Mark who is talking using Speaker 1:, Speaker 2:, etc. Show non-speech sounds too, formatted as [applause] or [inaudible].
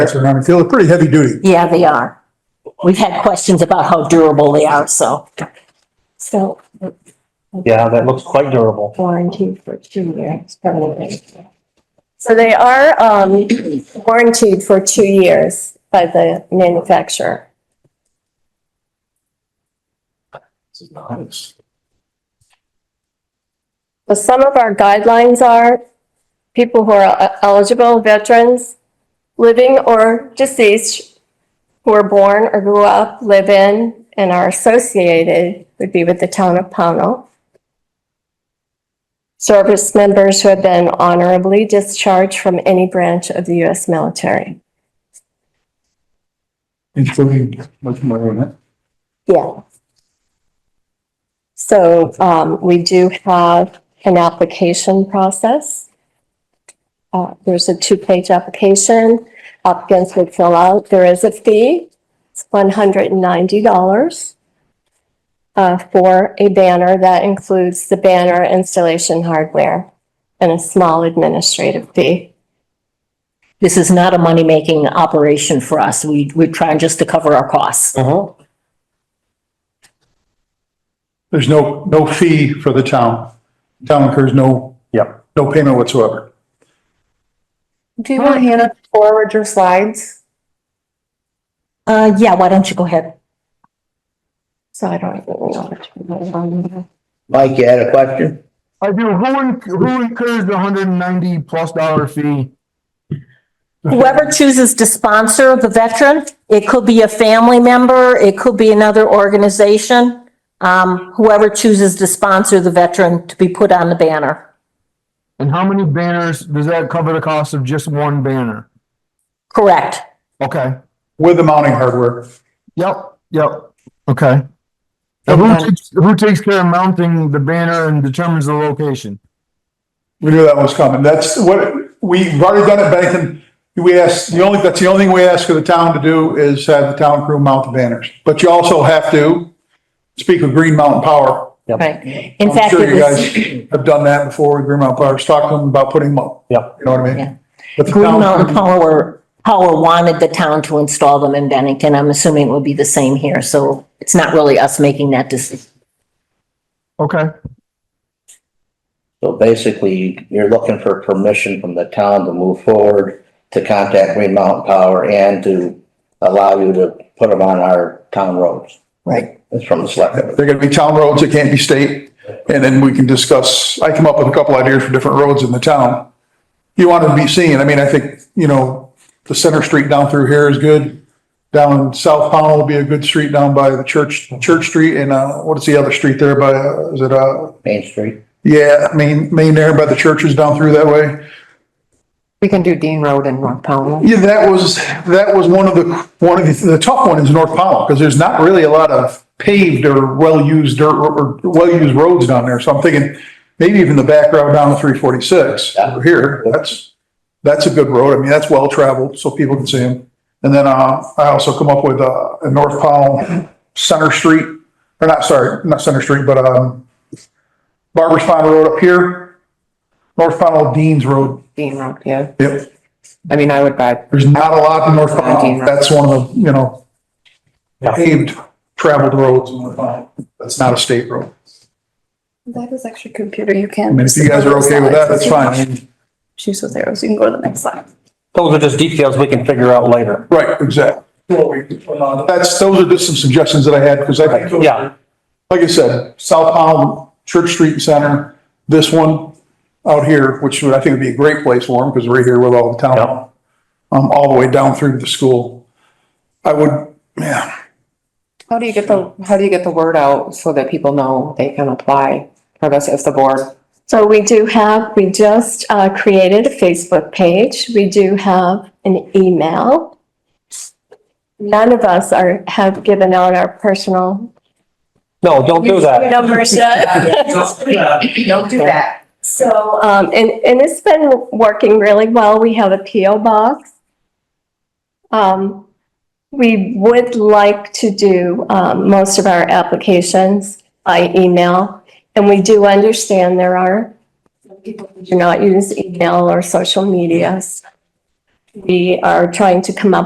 Speaker 1: around the field, pretty heavy duty.
Speaker 2: Yeah, they are. We've had questions about how durable they are, so. So
Speaker 3: Yeah, that looks quite durable.
Speaker 2: warranty for two years, probably.
Speaker 4: So they are, um, warranted for two years by the manufacturer.
Speaker 3: This is nice.
Speaker 4: But some of our guidelines are people who are uh, eligible veterans, living or deceased, who were born or grew up, live in, and are associated would be with the town of Pownell. Service members who have been honorably discharged from any branch of the U.S. military.
Speaker 1: Including much more than that.
Speaker 4: Yeah. So, um, we do have an application process. Uh, there's a two-page application. Applicants would fill out. There is a fee. It's one hundred and ninety dollars uh, for a banner that includes the banner installation hardware and a small administrative fee.
Speaker 2: This is not a money-making operation for us. We, we're trying just to cover our costs.
Speaker 3: Uh-huh.
Speaker 1: There's no, no fee for the town. Town incurs no.
Speaker 3: Yep.
Speaker 1: No payment whatsoever.
Speaker 5: Do you want Hannah to forward your slides?
Speaker 2: Uh, yeah, why don't you go ahead?
Speaker 4: So I don't even know what to put on there.
Speaker 6: Mike, you had a question?
Speaker 7: I do. Who, inc- who incurs the hundred and ninety plus dollar fee?
Speaker 2: Whoever chooses to sponsor the veteran, it could be a family member, it could be another organization. Um, whoever chooses to sponsor the veteran to be put on the banner.
Speaker 7: And how many banners does that cover the cost of just one banner?
Speaker 2: Correct.
Speaker 7: Okay.
Speaker 1: With the mounting hardware,
Speaker 7: Yep. Yep. Okay. And who takes, who takes care of mounting the banner and determines the location?
Speaker 1: we knew that was coming. That's what, we've already done it, Bennington. We asked, the only, that's the only thing we ask of the town to do is have the town crew mount the banners. But you also have to speak with Green Mountain Power.
Speaker 2: Right. In
Speaker 1: I'm
Speaker 2: fact,
Speaker 1: sure
Speaker 2: it
Speaker 1: you
Speaker 2: was,
Speaker 1: guys Have done that before with Green Mountain Power. Talked to them about putting them up.
Speaker 3: Yep.
Speaker 1: You know what I
Speaker 2: Yeah.
Speaker 1: mean? But the
Speaker 2: Green
Speaker 1: town-
Speaker 2: Mountain Power, Power wanted the town to install them in Bennington. I'm assuming it would be the same here, so it's not really us making that decision.
Speaker 7: Okay.
Speaker 6: So basically, you're looking for permission from the town to move forward, to contact Green Mountain Power and to allow you to put them on our town roads.
Speaker 2: Right.
Speaker 6: It's from the selectmen.
Speaker 1: They're gonna be town roads, it can't be state, and then we can discuss, I come up with a couple ideas for different roads in the town. You wanna be seeing, I mean, I think, you know, the center street down through here is good. Down South Pownell will be a good street down by the church, Church Street and, uh, what is the other street there by, uh, is it, uh,
Speaker 6: Main Street.
Speaker 1: yeah, main, main there by the churches down through that way.
Speaker 5: We can do Dean Road and North Powell.
Speaker 1: Yeah, that was, that was one of the, one of the, the tough one is North Powell, because there's not really a lot of paved or well-used dirt or or well-used roads down there, so I'm thinking maybe even the back road down to three forty-six
Speaker 6: Yeah.
Speaker 1: over here, that's, that's a good road, I mean, that's well-traveled, so people can see them. And then, uh, I also come up with, uh, a North Powell Center Street, or not, sorry, not Center Street, but, um, Barber's Pond Road up here, North Powell Dean's Road,
Speaker 5: Dean Road, yeah.
Speaker 1: yep.
Speaker 5: I mean, I would buy,
Speaker 1: There's not a lot in North Pownell. That's one of the, you know,
Speaker 3: Yeah.
Speaker 1: paved traveled roads in North Pownell. That's not a state road.
Speaker 8: That is actually computer. You
Speaker 1: I
Speaker 8: can.
Speaker 1: mean, if you guys are okay with that, that's fine. I mean,
Speaker 8: Choose those arrows. You can go to the next slide.
Speaker 3: Those are just details we can figure out later.
Speaker 1: Right, exactly. What we- uh, That's, those are just some suggestions that I had, because I think,
Speaker 3: Yeah,
Speaker 1: like I said, South Pownell, Church Street Center, this one out here, which would, I think would be a great place for them, because we're here with all the town.
Speaker 3: Yeah.
Speaker 1: Um, all the way down through to the school. I would, yeah.
Speaker 5: how do you get the, how do you get the word out so that people know they can apply for this as the board?
Speaker 4: So we do have, we just uh, created a Facebook page. We do have an email. None of us are, have given out our personal
Speaker 3: no, don't do that.
Speaker 4: numbers
Speaker 5: [laughs]
Speaker 4: yet.
Speaker 5: Don't do that.
Speaker 4: So, um, and, and it's been working really well. We have a PO box. Um, we would like to do, um, most of our applications by email. And we do understand there are people who do not use email or social medias. We are trying to come up